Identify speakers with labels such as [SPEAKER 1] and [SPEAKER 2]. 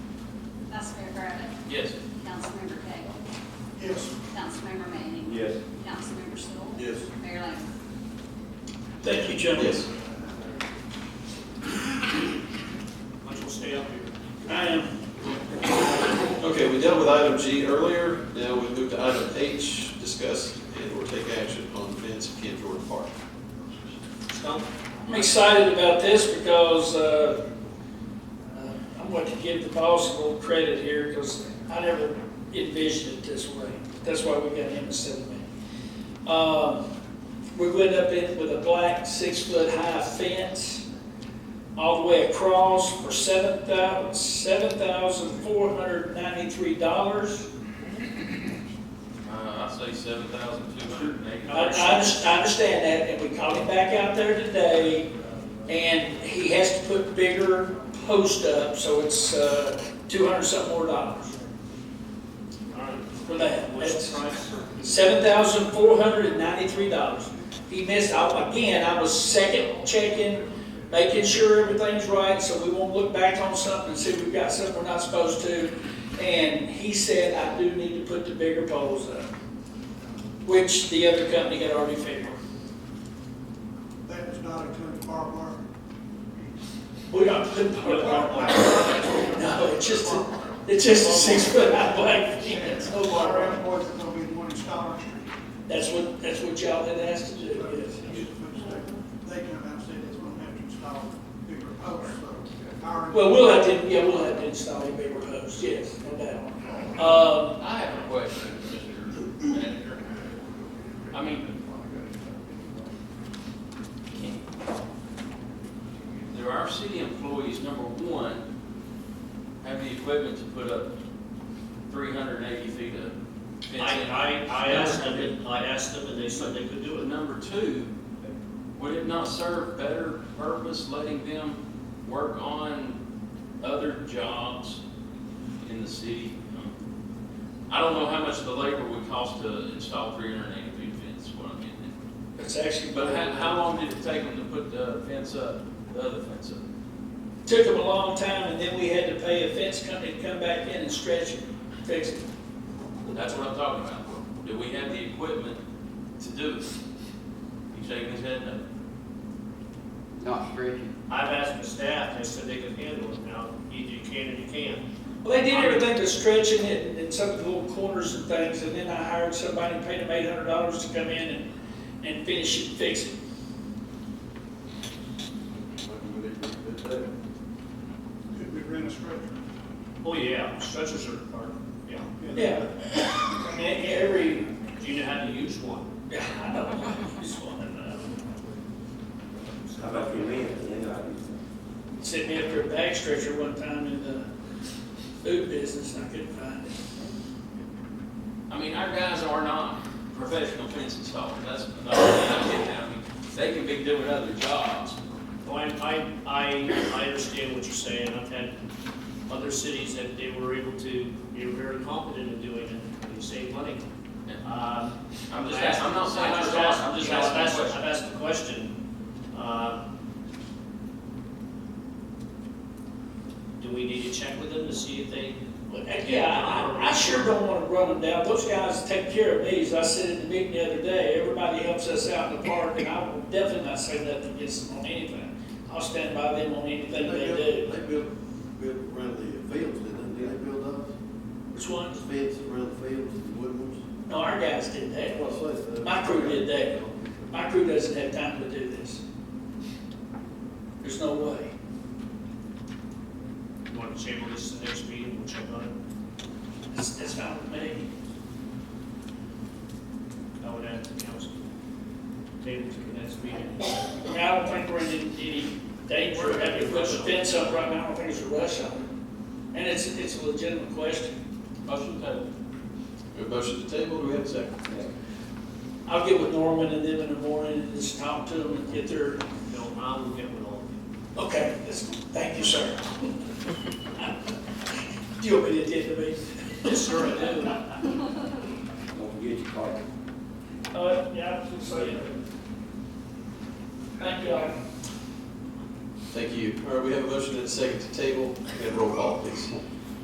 [SPEAKER 1] Yes.
[SPEAKER 2] Councilmember Cagle.
[SPEAKER 3] Yes.
[SPEAKER 2] Councilmember Manning.
[SPEAKER 4] Yes.
[SPEAKER 2] Councilmember Stoll.
[SPEAKER 3] Yes.
[SPEAKER 2] Mayor Lambert.
[SPEAKER 1] Thank you, gentlemen.
[SPEAKER 4] Yes.
[SPEAKER 3] Let's go stay up here.
[SPEAKER 1] I am
[SPEAKER 4] Okay, we dealt with item G earlier, now we move to item H, discuss and or take action on fence at Ken Jordan Park.
[SPEAKER 5] I'm excited about this because uh, uh, I want to give the boss a little credit here because I never envisioned it this way. That's why we got him instead of me. Um, We went up in with a black six-foot-high fence all the way across for seven thousand, seven thousand four hundred ninety-three dollars.
[SPEAKER 1] Uh, I say seven thousand two hundred and eighty.
[SPEAKER 5] I, I under- I understand that, and we called him back out there today, and he has to put bigger posts up, so it's, uh, two hundred something more dollars
[SPEAKER 3] All right.
[SPEAKER 5] for that.
[SPEAKER 3] What's the price for?
[SPEAKER 5] Seven thousand four hundred and ninety-three dollars. He missed, I- again, I was second checking, making sure everything's right, so we won't look back on something and see we've got something we're not supposed to. And he said, I do need to put the bigger poles up, which the other company had already figured.
[SPEAKER 6] That does not include barbed wire.
[SPEAKER 5] We don't put barbed wire. No, it's just, a- it's just a six foot high black fence, no barbed
[SPEAKER 6] Our
[SPEAKER 5] wire.
[SPEAKER 6] employees are gonna be the one installing street.
[SPEAKER 5] That's what, that's what y'all had asked to do, yes.
[SPEAKER 6] They can have said it's gonna have to install bigger posts, so. our-
[SPEAKER 5] Well, we'll have to, yeah, we'll have to install a bigger post, yes, no doubt. Um,
[SPEAKER 1] I have a question, Mr. Manager. I mean, there are city employees, number one, have the equipment to put up three hundred and eighty feet of
[SPEAKER 3] I,
[SPEAKER 1] fencing.
[SPEAKER 3] I, I asked them, and- I asked them, and they said they could do
[SPEAKER 1] But
[SPEAKER 3] it.
[SPEAKER 1] number two, would it not serve better purpose letting them work on other jobs in the city? I don't know how much the labor would cost to install three hundred and eighty feet fence, is what I'm getting
[SPEAKER 5] It's actually,
[SPEAKER 1] at. But how,
[SPEAKER 5] but
[SPEAKER 1] how long did it take them to put the fence up, the other fence up?
[SPEAKER 5] it took them a long time, and then we had to pay a fence company to come back in and stretch it, fix it.
[SPEAKER 1] That's what I'm talking about. Do we have the equipment to do it? He's shaking his head no.
[SPEAKER 7] Not stretching.
[SPEAKER 3] I've asked the staff, they said they could handle it now. Either you can or you can't.
[SPEAKER 5] Well, they did everything but stretching it and- and some of the little corners and things, and then I hired somebody, paid them eight hundred dollars to come in and, and finish it, fix it.
[SPEAKER 6] Could be rent a structure.
[SPEAKER 3] Oh, yeah, stretchers are, are, yeah.
[SPEAKER 5] Yeah. I mean, e-, every,
[SPEAKER 3] Do you know how to use one?
[SPEAKER 5] yeah, I know, this one,
[SPEAKER 8] How about your man, you know,
[SPEAKER 5] uh, sent me after a bag stretcher one time in the food business, and I couldn't find it.
[SPEAKER 1] I mean, our guys are not professional fence installers, that's another thing I get now. I mean, They can be doing other jobs.
[SPEAKER 3] Well, Oh, I, I, I, I understand what you're saying. I've had other cities that they were able to, they were very competent in doing it, and they saved money. Um,
[SPEAKER 1] I'm just
[SPEAKER 3] I asked-
[SPEAKER 1] asking, I'm not saying
[SPEAKER 3] I
[SPEAKER 1] you're
[SPEAKER 3] just
[SPEAKER 1] wrong,
[SPEAKER 3] asked-
[SPEAKER 1] I'm just
[SPEAKER 3] I've asked-
[SPEAKER 1] asking a question.
[SPEAKER 3] I've asked the question, uh, do we need to check with them to see if they?
[SPEAKER 5] Well, heck, Yeah, I, I- I sure don't wanna run them down, those guys take care of me, as I said at the meeting the other day, everybody helps us out in the park, and I will definitely not say nothing against them on anything. I'll stand by them on anything they do.
[SPEAKER 9] They built, built around the fields, didn't they? Did they build those?
[SPEAKER 5] Which ones?
[SPEAKER 9] Fence around the fields, the wooden ones?
[SPEAKER 5] No, our guys did that,
[SPEAKER 9] Well, so it's, uh,
[SPEAKER 5] my crew did that, my crew doesn't have time to do this. There's no way.
[SPEAKER 3] You want to table this to the next meeting, we'll check on it.
[SPEAKER 5] That's, that's fine with me.
[SPEAKER 3] I would ask the council, table to the next meeting.
[SPEAKER 5] I mean, I don't think we're in any any danger of having to put the fence up right now, I don't think there's a rush on it. And it's, it's a legitimate question.
[SPEAKER 1] Motion table.
[SPEAKER 4] We have a motion to table, do we have a second?
[SPEAKER 5] I'll get with Norman and them in the morning and just talk to them and get their,
[SPEAKER 3] No, I will get with all of you.
[SPEAKER 5] okay, that's, thank you, sir. Do you want me to attend the meeting?
[SPEAKER 3] Yes, sir, I do.
[SPEAKER 8] don't forget your car.
[SPEAKER 5] Uh, yeah, I'm
[SPEAKER 3] sorry.
[SPEAKER 5] Thank you.
[SPEAKER 4] Thank you. All right, we have a motion and a second to table, and roll call, please.